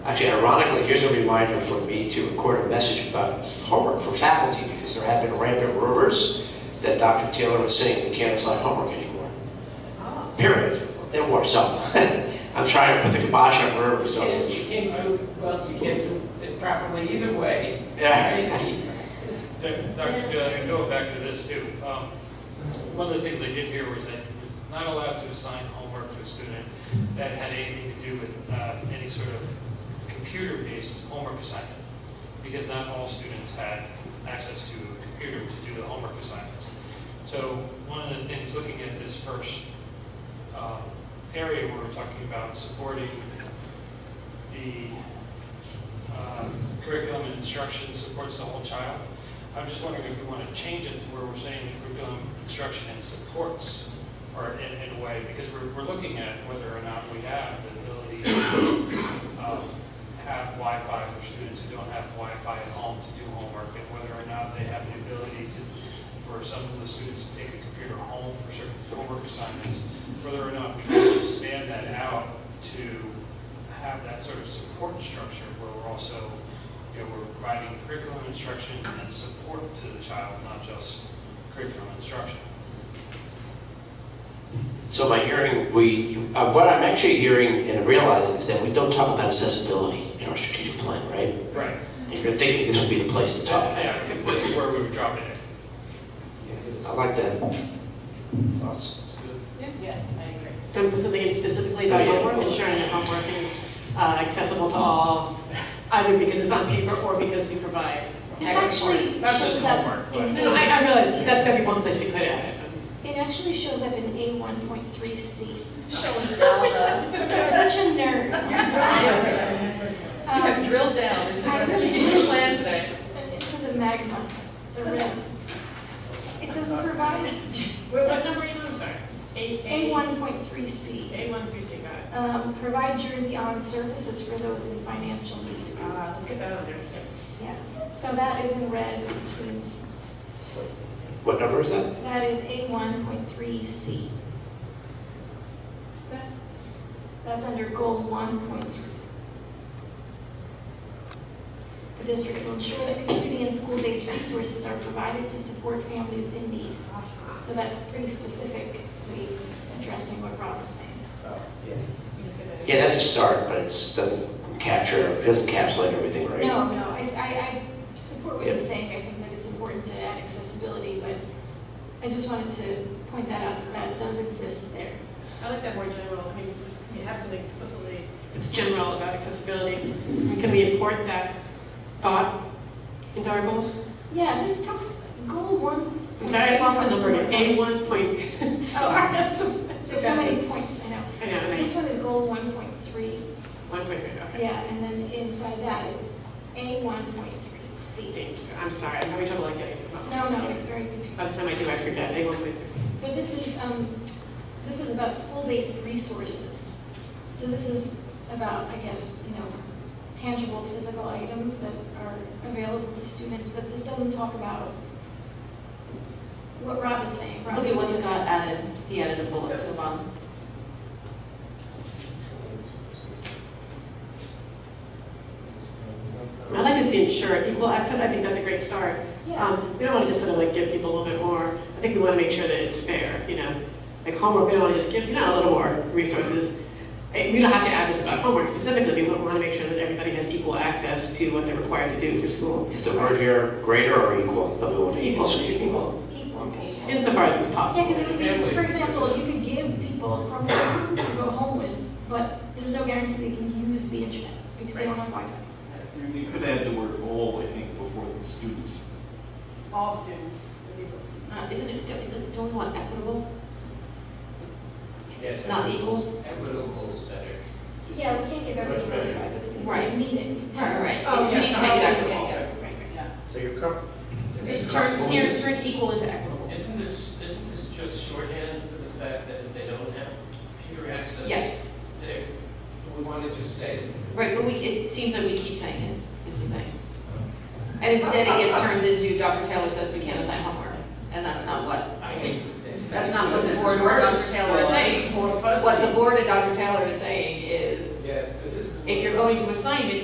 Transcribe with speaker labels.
Speaker 1: Actually, ironically, here's a reminder for me to record a message about homework for faculty, because there have been rampant rumors that Dr. Taylor is saying we can't assign homework anymore. Period. There were some. I'm trying to put the kibosh on rumors, so.
Speaker 2: And you can't do, well, you can't do it properly either way.
Speaker 1: Yeah.
Speaker 3: Doc- Dr. Taylor, uh, and going back to this too, um, one of the things I did hear was that you're not allowed to assign homework to a student that had anything to do with uh, any sort of computer-based homework assignment, because not all students had access to a computer to do the homework assignments. So one of the things, looking at this first um, area where we're talking about supporting the uh, curriculum and instruction supports the whole child. I'm just wondering if we want to change it to where we're saying curriculum, instruction, and supports, or in, in a way, because we're, we're looking at whether or not we have the ability to um, have Wi-Fi for students who don't have Wi-Fi at home to do homework, and whether or not they have the ability to, for some of the students to take a computer home for certain homework assignments, whether or not we can expand that out to have that sort of support structure where we're also, you know, we're providing curriculum instruction and support to the child, not just curriculum instruction.
Speaker 1: So by hearing, we, uh, what I'm actually hearing and realizing is that we don't talk about accessibility in our strategic plan, right?
Speaker 3: Right.
Speaker 1: If you're thinking this would be the place to talk.
Speaker 3: Yeah, I think this is where we would drop it in.
Speaker 1: I like that. Thoughts?
Speaker 2: Yes, I agree.
Speaker 4: Don't put something in specifically about
Speaker 1: Oh, yeah.
Speaker 4: homework, ensuring that homework is uh, accessible to all, either because it's on paper or because we provide.
Speaker 5: It's actually.
Speaker 3: Not just
Speaker 5: shows up
Speaker 3: homework,
Speaker 5: in-
Speaker 4: No, I, I realize that that'd be one place we could add it.
Speaker 5: It actually shows up in A one point three C.
Speaker 6: Shows
Speaker 5: You're
Speaker 6: down.
Speaker 5: such a nerd.
Speaker 6: You have drilled down into
Speaker 5: Um,
Speaker 6: our strategic plan today.
Speaker 5: Into the magma, the rim. It says provide
Speaker 7: What, what number are you on, sorry? A,
Speaker 5: A one point three C.
Speaker 7: A one through C, got it.
Speaker 5: Um, provide Jersey on services for those in financial need.
Speaker 6: Ah.
Speaker 7: Uh, let's get that on there.
Speaker 5: Yeah, so that is in red, which means
Speaker 1: What number is that?
Speaker 5: that is A one point three C. That's under goal one point three. The district will ensure that community and school-based resources are provided to support families in need. So that's pretty specifically addressing what Rob was saying.
Speaker 7: You just get that.
Speaker 1: Yeah, that's a start, but it's, doesn't capture, it doesn't encapsulate everything, right?
Speaker 5: No, no, I, s- I- I support what he's
Speaker 1: Yeah.
Speaker 5: saying, I think that it's important to add accessibility, but I just wanted to point that out, that that does exist there.
Speaker 7: I like that more general, I mean, you have something explicitly,
Speaker 4: It's general about accessibility. And Can we import that thought into our goals?
Speaker 5: Yeah, this talks, goal one.
Speaker 4: I'm sorry, I lost the number again. A one point.
Speaker 5: Oh, I have
Speaker 4: some.
Speaker 5: So so many points, I know.
Speaker 4: I know, and
Speaker 5: This
Speaker 4: I,
Speaker 5: one is goal one point three,
Speaker 4: one point three, okay.
Speaker 5: yeah, and then inside that is A one point three C.
Speaker 4: Thank you. I'm sorry, I'm having trouble like getting to the bottom.
Speaker 5: No, no, it's very confusing.
Speaker 4: By the time I do, I forget. A one point three.
Speaker 5: But this is, um, this is about school-based resources. So this is about, I guess, you know, tangible physical items that are available to students, but this doesn't talk about what Rob is saying. Rob
Speaker 6: Look
Speaker 5: is
Speaker 6: at what
Speaker 5: saying-
Speaker 6: Scott added, he added a bullet to the bottom.
Speaker 4: I'd like to see ensure equal access. I think that's a great start.
Speaker 5: Yeah.
Speaker 4: Um, we don't want to just sort of like give people a little bit more. I think we want to make sure that it's fair, you know? Like homework, we don't want to just give, you know, a little more resources. Eh, We don't have to add this about homework specifically, but we want to make sure that everybody has equal access to what they're required to do for school.
Speaker 1: Is the word here greater or equal? But we want to equal.
Speaker 4: Equal, equal,
Speaker 5: Equal. Yeah,
Speaker 4: insofar as it's
Speaker 5: because
Speaker 4: possible.
Speaker 5: it would be, for example, you could give people a program to go home with, but there's no guarantee they can use the internet because they don't have Wi-Fi.
Speaker 8: You could add the word all, I think, before the students.
Speaker 7: all students,
Speaker 6: Uh, Isn't it, isn't, don't we want equitable? Yes. Not equal?
Speaker 5: Yeah, we can't give everyone Wi-Fi, but the people who
Speaker 6: Right.
Speaker 5: need it.
Speaker 6: Right, right.
Speaker 7: Oh,
Speaker 6: We need
Speaker 7: yes,
Speaker 6: to make it
Speaker 7: oh,
Speaker 6: equitable.
Speaker 1: So you're comfortable?
Speaker 6: Just turn, turn turn equal into equitable.
Speaker 9: Isn't this, isn't this just shorthand for the fact that if they don't have computer access?
Speaker 6: Yes,
Speaker 9: they- We want to just say,
Speaker 6: right, but we, it seems like we keep saying it, is the thing. And instead it gets turned into Dr. Taylor says we can't assign homework, and that's not what,
Speaker 9: I hate this thing.
Speaker 6: that's not what the
Speaker 9: This is
Speaker 6: board or Dr.
Speaker 9: worse.
Speaker 6: Taylor is
Speaker 9: This
Speaker 6: saying.
Speaker 9: is more
Speaker 6: What the
Speaker 9: fussy.
Speaker 6: board and Dr. Taylor is saying is,
Speaker 9: Yes, this is.
Speaker 6: if you're
Speaker 9: more
Speaker 6: going to assign it,